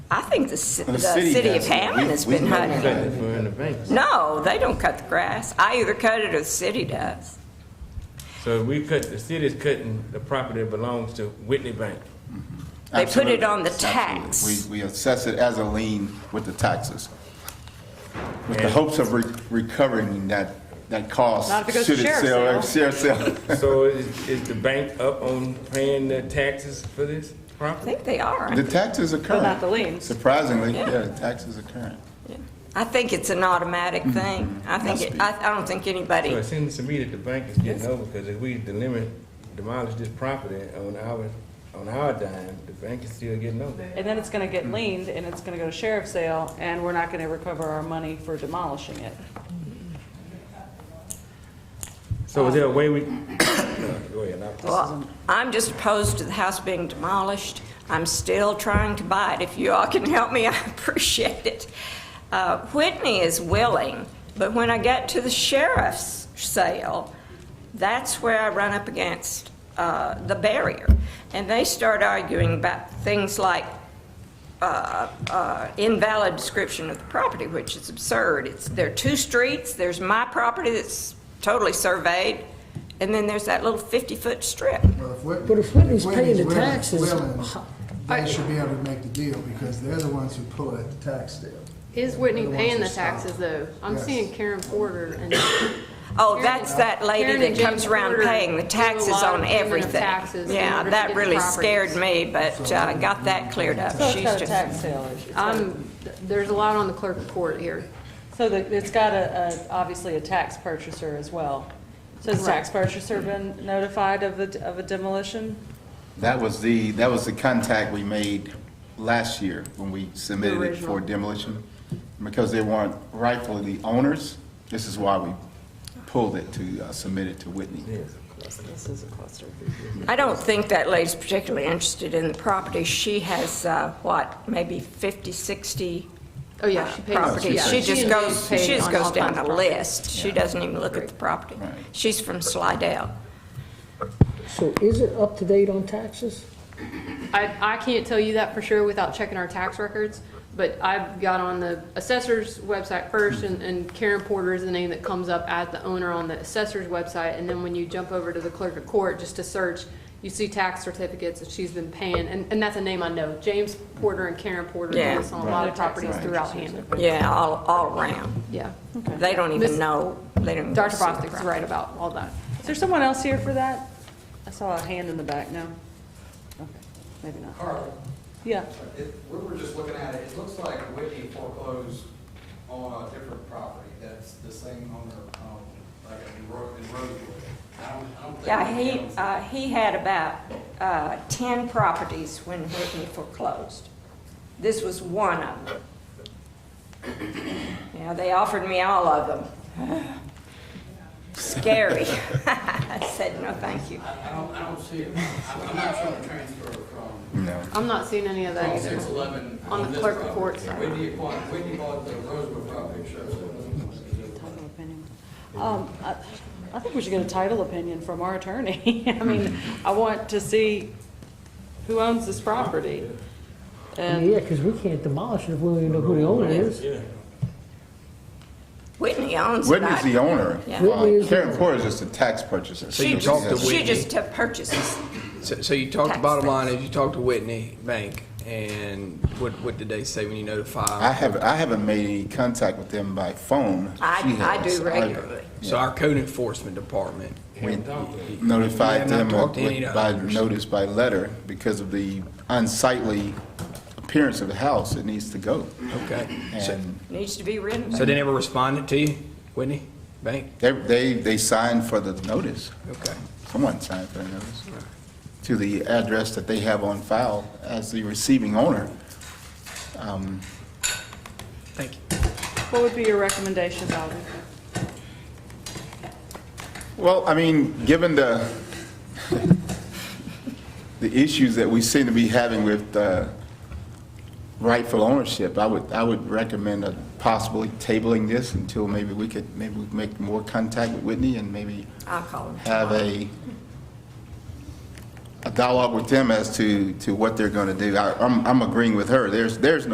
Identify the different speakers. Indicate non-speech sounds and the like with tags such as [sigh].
Speaker 1: I think the, ci-
Speaker 2: The
Speaker 1: the
Speaker 2: city
Speaker 1: city of
Speaker 2: does it.
Speaker 1: Hammond
Speaker 2: We-
Speaker 1: has
Speaker 2: we
Speaker 1: been
Speaker 2: don't
Speaker 1: hunting.
Speaker 2: cut
Speaker 1: it.
Speaker 2: it for in the banks.
Speaker 1: No, they don't cut the grass. I either cut it or the city does.
Speaker 3: So we cut, the city's cutting the property that belongs to Whitney Bank.
Speaker 1: They put it
Speaker 2: Absolutely.
Speaker 1: on the
Speaker 2: Absolutely.
Speaker 1: tax.
Speaker 2: We, we assess it as a lien with the taxes, with the hopes of re- recovering that, that cost.
Speaker 4: Not if it goes to
Speaker 2: should
Speaker 4: sheriff's
Speaker 2: sell- Sheriff's sale.
Speaker 3: So is, is the bank up on paying the taxes for this
Speaker 1: I
Speaker 3: property?
Speaker 1: think they are.
Speaker 2: The taxes are current.
Speaker 4: not the liens.
Speaker 2: Surprisingly,
Speaker 1: Yeah.
Speaker 2: yeah, the taxes are current.
Speaker 1: I think it's an automatic thing. I think, it- I, I don't think
Speaker 3: So
Speaker 1: anybody,
Speaker 3: it seems to me that the bank is getting over, because if we delimit, demolish this property on our, on our dime, the bank is still getting over.
Speaker 4: And then it's gonna get leaned, and it's gonna go to sheriff's sale, and we're not gonna recover our money for demolishing it.
Speaker 3: So is there a way we, [coughs] No, go ahead, I-
Speaker 1: well, I'm just opposed to the house being demolished. I'm still trying to buy it. If you all can help me, [laughs] I appreciate it. Uh, Whitney is willing, but when I get to the sheriff's sale, that's where I run up against, uh, the barrier. And they start arguing about things like uh, uh, invalid description of the property, which is absurd. It's, there are two streets, there's my property that's totally surveyed, and then there's that little 50-foot strip.
Speaker 5: But if Whitney's paying the
Speaker 6: willing-
Speaker 5: taxes,
Speaker 6: willing,
Speaker 5: ho-
Speaker 6: They should be able to make the deal because they're the ones who pull at the tax deal.
Speaker 7: Is Whitney
Speaker 6: The ones
Speaker 7: paying
Speaker 6: that
Speaker 7: the taxes
Speaker 6: stop.
Speaker 7: though? I'm
Speaker 6: Yes.
Speaker 7: seeing Karen Porter and.
Speaker 1: Oh, that's that lady
Speaker 7: Karen
Speaker 1: that
Speaker 7: and James
Speaker 1: comes around
Speaker 7: Porter
Speaker 1: paying the
Speaker 7: do a
Speaker 1: taxes
Speaker 7: lot of
Speaker 1: on
Speaker 7: payment of
Speaker 1: everything.
Speaker 7: taxes in
Speaker 1: Yeah,
Speaker 7: order to
Speaker 1: that
Speaker 7: get
Speaker 1: really
Speaker 7: properties.
Speaker 1: scared me, but uh, I got that cleared up.
Speaker 4: So it's
Speaker 1: She's
Speaker 4: got a
Speaker 1: just-
Speaker 4: tax sale issue.
Speaker 7: I'm, there's a lot on the clerk of court here.
Speaker 4: So the- it's got a, a- obviously a tax purchaser as well. So has the tax purchaser been notified of the, of a demolition?
Speaker 2: That was the, that was the contact we made last year when we submitted it for
Speaker 7: Original.
Speaker 2: demolition. Because they weren't rightfully the owners, this is why we pulled it to uh, submit it to Whitney.
Speaker 4: This is a cluster.
Speaker 1: I don't think that lady's particularly interested in the property. She has, uh, what, maybe 50, 60
Speaker 7: Oh, yeah, she pays.
Speaker 1: properties.
Speaker 7: yeah,
Speaker 1: She just
Speaker 7: and
Speaker 1: goes,
Speaker 7: James
Speaker 1: she
Speaker 7: paid
Speaker 1: just
Speaker 7: on
Speaker 1: goes
Speaker 7: all
Speaker 1: down
Speaker 7: kinds of
Speaker 1: a
Speaker 7: properties.
Speaker 1: list. She doesn't even look at the property.
Speaker 2: Right.
Speaker 1: She's from Slidell.
Speaker 5: so is it up to date on taxes?
Speaker 7: I, I can't tell you that for sure without checking our tax records, but I've got on the assessor's website first, and, and Karen Porter is the name that comes up as the owner on the assessor's website, and then when you jump over to the clerk of court, just to search, you see tax certificates that she's been paying, and, and that's a name I know, James Porter and Karen Porter do
Speaker 1: Yeah.
Speaker 7: this on a lot of properties throughout Hammond,
Speaker 1: Yeah, all, all around.
Speaker 7: yeah.
Speaker 1: They don't even
Speaker 7: Miss-
Speaker 1: know, they don't even.
Speaker 7: Dr.
Speaker 1: see the
Speaker 7: Bostic's right about all that.
Speaker 4: Is there someone else here for that? I saw a hand in the back, no? Okay, maybe not.
Speaker 8: Carl,
Speaker 4: Yeah,
Speaker 8: it- we were just looking at it, it looks like Whitney foreclosed on a different property that's the same owner, um, like in Ro- in Rosewood. I don't, I don't think.
Speaker 1: Yeah, he,
Speaker 8: owns it.
Speaker 1: uh, he had about, uh, ten properties when Whitney foreclosed. This was one of them. Yeah, they offered me all of them. Scary. [laughs] I said, no, thank you.
Speaker 8: I I don't, I don't see it. I'm I'm not trying to transfer from
Speaker 2: No.
Speaker 7: I'm not seeing any of that either.
Speaker 8: Oh, six eleven.
Speaker 7: On the clerk of court side.
Speaker 8: Whitney bought, Whitney bought the Rosewood property, sure.
Speaker 4: title opinion. Um, I, I think we should get a title opinion from our attorney. [laughs] I mean, I want to see who owns this property.
Speaker 5: Yeah,
Speaker 4: And,
Speaker 5: because we can't demolish it if we don't even know who the owner is.
Speaker 1: Whitney owns it.
Speaker 2: Whitney's the
Speaker 1: I-
Speaker 2: owner.
Speaker 1: Yeah.
Speaker 5: Whitney
Speaker 2: Uh,
Speaker 5: is the
Speaker 2: Karen
Speaker 5: owner.
Speaker 2: Porter is just a tax purchaser.
Speaker 1: She
Speaker 9: you talked to
Speaker 1: just, she
Speaker 9: Whitney.
Speaker 1: just uh, purchases.
Speaker 9: So, so you talked
Speaker 1: Tax
Speaker 9: the bottom line is you talked to Whitney Bank, and what what did they say when you notified? them?
Speaker 2: I haven't, I haven't made any contact with them by phone.
Speaker 1: I-
Speaker 2: She
Speaker 1: I
Speaker 2: has.
Speaker 1: do regularly.
Speaker 9: So our code enforcement department.
Speaker 2: We
Speaker 9: We
Speaker 2: notified
Speaker 9: have not
Speaker 2: them
Speaker 9: talked to any
Speaker 2: with-
Speaker 9: of
Speaker 2: by
Speaker 9: others.
Speaker 2: notice by letter because of the unsightly appearance of the house. It needs to go.
Speaker 9: Okay. So,
Speaker 2: And
Speaker 1: Needs to be
Speaker 9: so
Speaker 1: renovated.
Speaker 9: they never responded to you, Whitney Bank.
Speaker 2: they, they, they signed for the notice.
Speaker 9: Okay.
Speaker 2: Someone signed for the notice. To the address that they have on file as the receiving owner. Um,
Speaker 9: Thank you.
Speaker 4: what would be your recommendation, Bobby?
Speaker 2: Well, I mean, given the, the issues that we seem to be having with uh, rightful ownership, I would, I would recommend uh, possibly tabling this until maybe we could, maybe we could make more contact with Whitney and maybe
Speaker 1: I'll call him.
Speaker 2: have a, a dialogue with them as to, to what they're going to do. I- I'm, I'm agreeing with her. There's, there's no.